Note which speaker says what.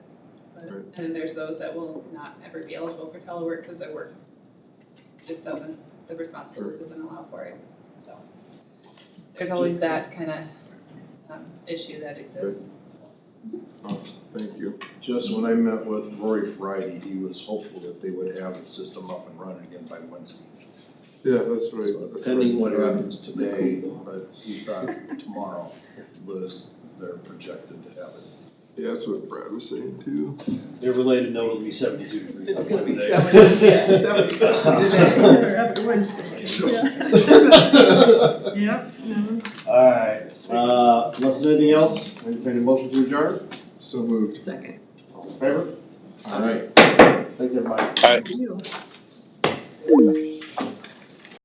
Speaker 1: Right.
Speaker 2: And then there's those that will not ever be eligible for telework because their work just doesn't, the responsibility doesn't allow for it, so. There's always that kind of um issue that exists.
Speaker 1: Awesome, thank you.
Speaker 3: Just when I met with Rory Friday, he was hopeful that they would have the system up and running again by Wednesday.
Speaker 1: Yeah, that's right.
Speaker 3: So Depending what happens today, but he thought tomorrow was their projected to have it.
Speaker 1: Yeah, that's what Brad was saying too.
Speaker 4: Their related note will be seventy-two degrees.
Speaker 5: It's
Speaker 4: on
Speaker 5: gonna be
Speaker 4: Wednesday.
Speaker 5: seventy, yeah, seventy today, or up to Wednesday. Yep, mhm.
Speaker 4: Alright, uh, unless there's anything else, entertain a motion to adjourn,
Speaker 1: So moved.
Speaker 5: second.
Speaker 4: all in favor?
Speaker 1: All right.
Speaker 4: Thanks, everybody.
Speaker 5: You.